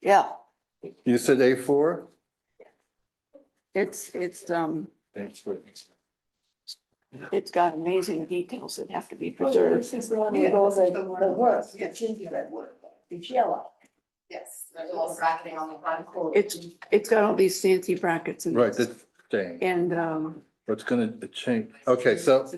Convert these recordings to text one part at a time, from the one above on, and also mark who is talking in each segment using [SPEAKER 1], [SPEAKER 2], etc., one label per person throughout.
[SPEAKER 1] Yeah,
[SPEAKER 2] You said A four?
[SPEAKER 1] it's, it's, um,
[SPEAKER 2] Thanks for.
[SPEAKER 1] it's got amazing details that have to be
[SPEAKER 3] Oh,
[SPEAKER 1] preserved.
[SPEAKER 4] Yes, there's a little bracketing on the front.
[SPEAKER 1] It's, it's got all these fancy brackets and.
[SPEAKER 2] Right, that's staying.
[SPEAKER 1] And, um,
[SPEAKER 2] What's gonna change? Okay, so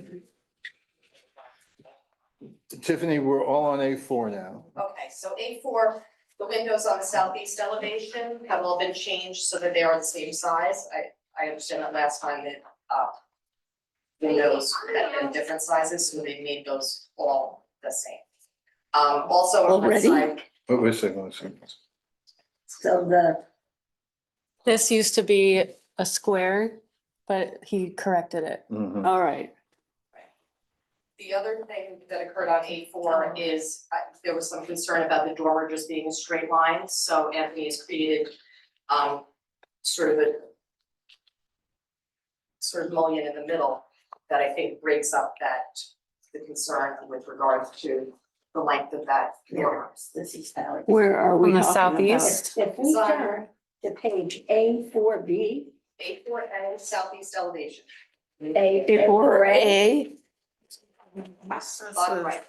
[SPEAKER 2] Tiffany, we're all on A four now.
[SPEAKER 4] Okay, so A four, the windows on the southeast elevation have all been changed so that they are the same size. I, I understand that last time that, uh, windows had been different sizes, so they made those all the same. Um, also on one
[SPEAKER 1] Already?
[SPEAKER 4] side,
[SPEAKER 2] What was I going to say?
[SPEAKER 3] So the,
[SPEAKER 5] This used to be a square, but he corrected it.
[SPEAKER 2] Mhm.
[SPEAKER 1] all right,
[SPEAKER 4] the other thing that occurred on A four is, uh, there was some concern about the dormer just being a straight line, so Anthony has created, um, sort of a sort of mullion in the middle that I think breaks up that, the concern with regards to the length of that dormer.
[SPEAKER 3] this is how it.
[SPEAKER 1] where are we
[SPEAKER 5] On the
[SPEAKER 1] talking about?
[SPEAKER 5] southeast?
[SPEAKER 3] If we turn to page A four B,
[SPEAKER 4] A four and southeast elevation,
[SPEAKER 3] A.
[SPEAKER 1] Before A,
[SPEAKER 4] bottom right.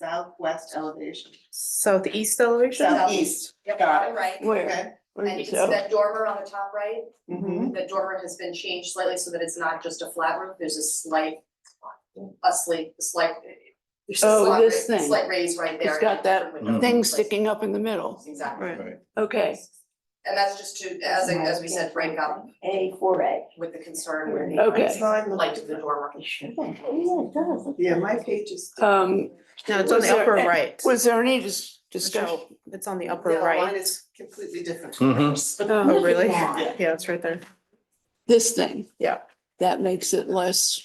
[SPEAKER 6] Southwest elevation.
[SPEAKER 5] Southeast elevation?
[SPEAKER 6] Southeast.
[SPEAKER 4] Yep,
[SPEAKER 6] Got
[SPEAKER 4] bottom right.
[SPEAKER 1] where?
[SPEAKER 6] Okay.
[SPEAKER 1] Where
[SPEAKER 4] And
[SPEAKER 1] you
[SPEAKER 4] you can
[SPEAKER 1] go?
[SPEAKER 4] see that dormer on the top right?
[SPEAKER 6] Mm-hmm.
[SPEAKER 4] The dormer has been changed slightly so that it's not just a flat roof, there's a slight, a slight, a slight. there's a
[SPEAKER 1] Oh,
[SPEAKER 4] slight
[SPEAKER 1] this
[SPEAKER 4] ra-
[SPEAKER 1] thing.
[SPEAKER 4] Slight raise right there.
[SPEAKER 1] It's got that
[SPEAKER 4] Window.
[SPEAKER 1] Thing sticking up in the middle,
[SPEAKER 4] Exactly.
[SPEAKER 5] Right.
[SPEAKER 2] Right.
[SPEAKER 1] okay.
[SPEAKER 4] And that's just to, as, I- as we said, break up
[SPEAKER 3] A four A.
[SPEAKER 4] with the concern with the
[SPEAKER 1] Okay.
[SPEAKER 4] light of the dormer.
[SPEAKER 3] Yeah, it does.
[SPEAKER 6] Yeah, my page is.
[SPEAKER 1] Um,
[SPEAKER 7] No, it's on
[SPEAKER 1] Was
[SPEAKER 7] the
[SPEAKER 1] there-
[SPEAKER 7] upper right.
[SPEAKER 1] was there any dis- discussion?
[SPEAKER 7] Michelle, It's on the upper
[SPEAKER 6] Yeah, Mine
[SPEAKER 7] right.
[SPEAKER 6] is completely different.
[SPEAKER 2] Mhm.
[SPEAKER 1] Um,
[SPEAKER 7] Oh, really?
[SPEAKER 6] Yeah.
[SPEAKER 7] Yeah, it's right there.
[SPEAKER 1] This thing?
[SPEAKER 7] Yeah.
[SPEAKER 1] That makes it less,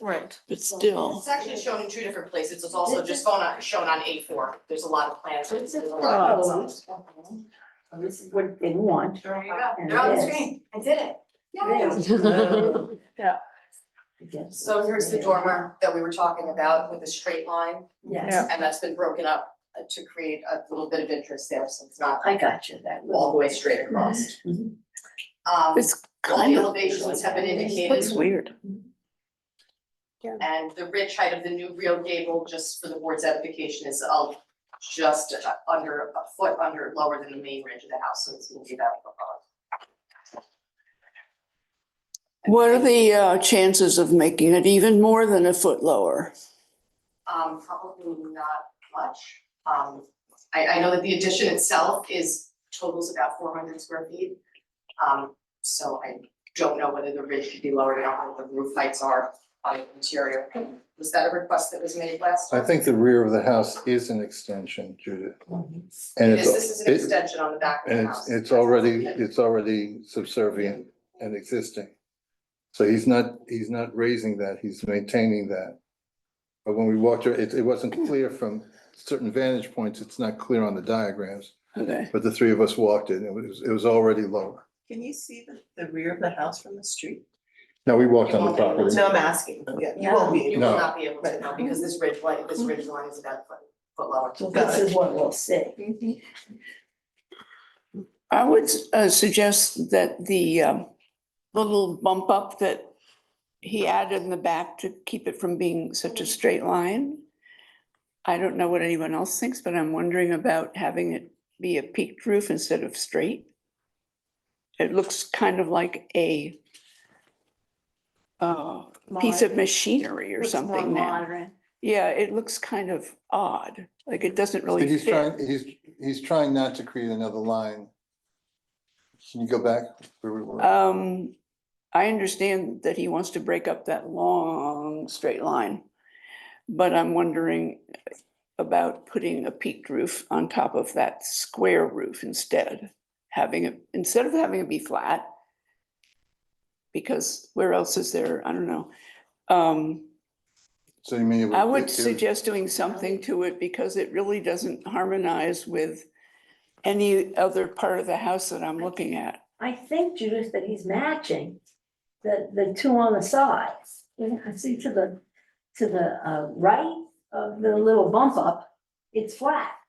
[SPEAKER 7] Right.
[SPEAKER 1] but still,
[SPEAKER 4] It's actually shown in two different places, it's also just shown on, shown on A four, there's a lot of plans, there's a lot of.
[SPEAKER 3] Oh, This is what they want.
[SPEAKER 4] There you go, they're on the screen, I did it, yay. So here's the dormer that we were talking about with the straight line.
[SPEAKER 3] Yes,
[SPEAKER 4] And that's been broken up uh, to create a little bit of interest there, so it's not
[SPEAKER 3] I got you, that
[SPEAKER 4] all the
[SPEAKER 3] little.
[SPEAKER 4] way straight across.
[SPEAKER 3] Mhm.
[SPEAKER 4] Um,
[SPEAKER 1] it's
[SPEAKER 4] all the
[SPEAKER 1] kind of,
[SPEAKER 4] elevations have been
[SPEAKER 1] looks
[SPEAKER 4] indicated
[SPEAKER 1] weird.
[SPEAKER 4] and the ridge height of the new real gable, just for the board's edification, is uh, just uh, under, a foot under, lower than the main ridge of the house, so it's gonna be about a foot above.
[SPEAKER 1] What are the uh, chances of making it even more than a foot lower?
[SPEAKER 4] Um, probably not much. Um, I, I know that the addition itself is totals about four hundred square feet. Um, so I don't know whether the ridge should be lower down or what the roof heights are on the interior. Was that a request that was made last?
[SPEAKER 2] I
[SPEAKER 4] time?
[SPEAKER 2] think the rear of the house is an extension, Judith. And
[SPEAKER 4] It
[SPEAKER 2] it's,
[SPEAKER 4] is, this is an
[SPEAKER 2] it-
[SPEAKER 4] extension on the back of
[SPEAKER 2] and
[SPEAKER 4] the
[SPEAKER 2] it's,
[SPEAKER 4] house.
[SPEAKER 2] it's already, it's already subservient and existing. So he's not, he's not raising that, he's maintaining that. But when we walked, her- it, it wasn't clear from certain vantage points, it's not clear on the diagrams.
[SPEAKER 1] Okay,
[SPEAKER 2] But the three of us walked it, and it was, it was already lower.
[SPEAKER 6] Can you see the, the rear of the house from the street?
[SPEAKER 2] No, we walked on the property.
[SPEAKER 6] No, I'm asking. Yeah, you won't be.
[SPEAKER 4] You
[SPEAKER 6] able-
[SPEAKER 4] will
[SPEAKER 2] No.
[SPEAKER 4] not be able to know because this ridge line, this ridge line is about a foot, foot lower.
[SPEAKER 3] This is what we'll see.
[SPEAKER 1] Mm-hmm. I would uh, suggest that the um, little bump up that he added in the back to keep it from being such a straight line. I don't know what anyone else thinks, but I'm wondering about having it be a peaked roof instead of straight. It looks kind of like a uh, piece of machinery or something now. Yeah, it looks kind of odd, like it doesn't really
[SPEAKER 2] He's
[SPEAKER 1] fit.
[SPEAKER 2] trying, he's, he's trying not to create another line. Can you go back? where we were?
[SPEAKER 1] Um, I understand that he wants to break up that long straight line. But I'm wondering about putting a peaked roof on top of that square roof instead. Having it, instead of having it be flat. Because where else is there? I don't know. Um,
[SPEAKER 2] So you mean? it
[SPEAKER 1] I would
[SPEAKER 2] it- it-
[SPEAKER 1] suggest doing something to it because it really doesn't harmonize with any other part of the house that I'm looking at.
[SPEAKER 3] I think Judith, that he's matching the, the two on the sides. You can see to the, to the, uh, right of the little bump up, it's flat.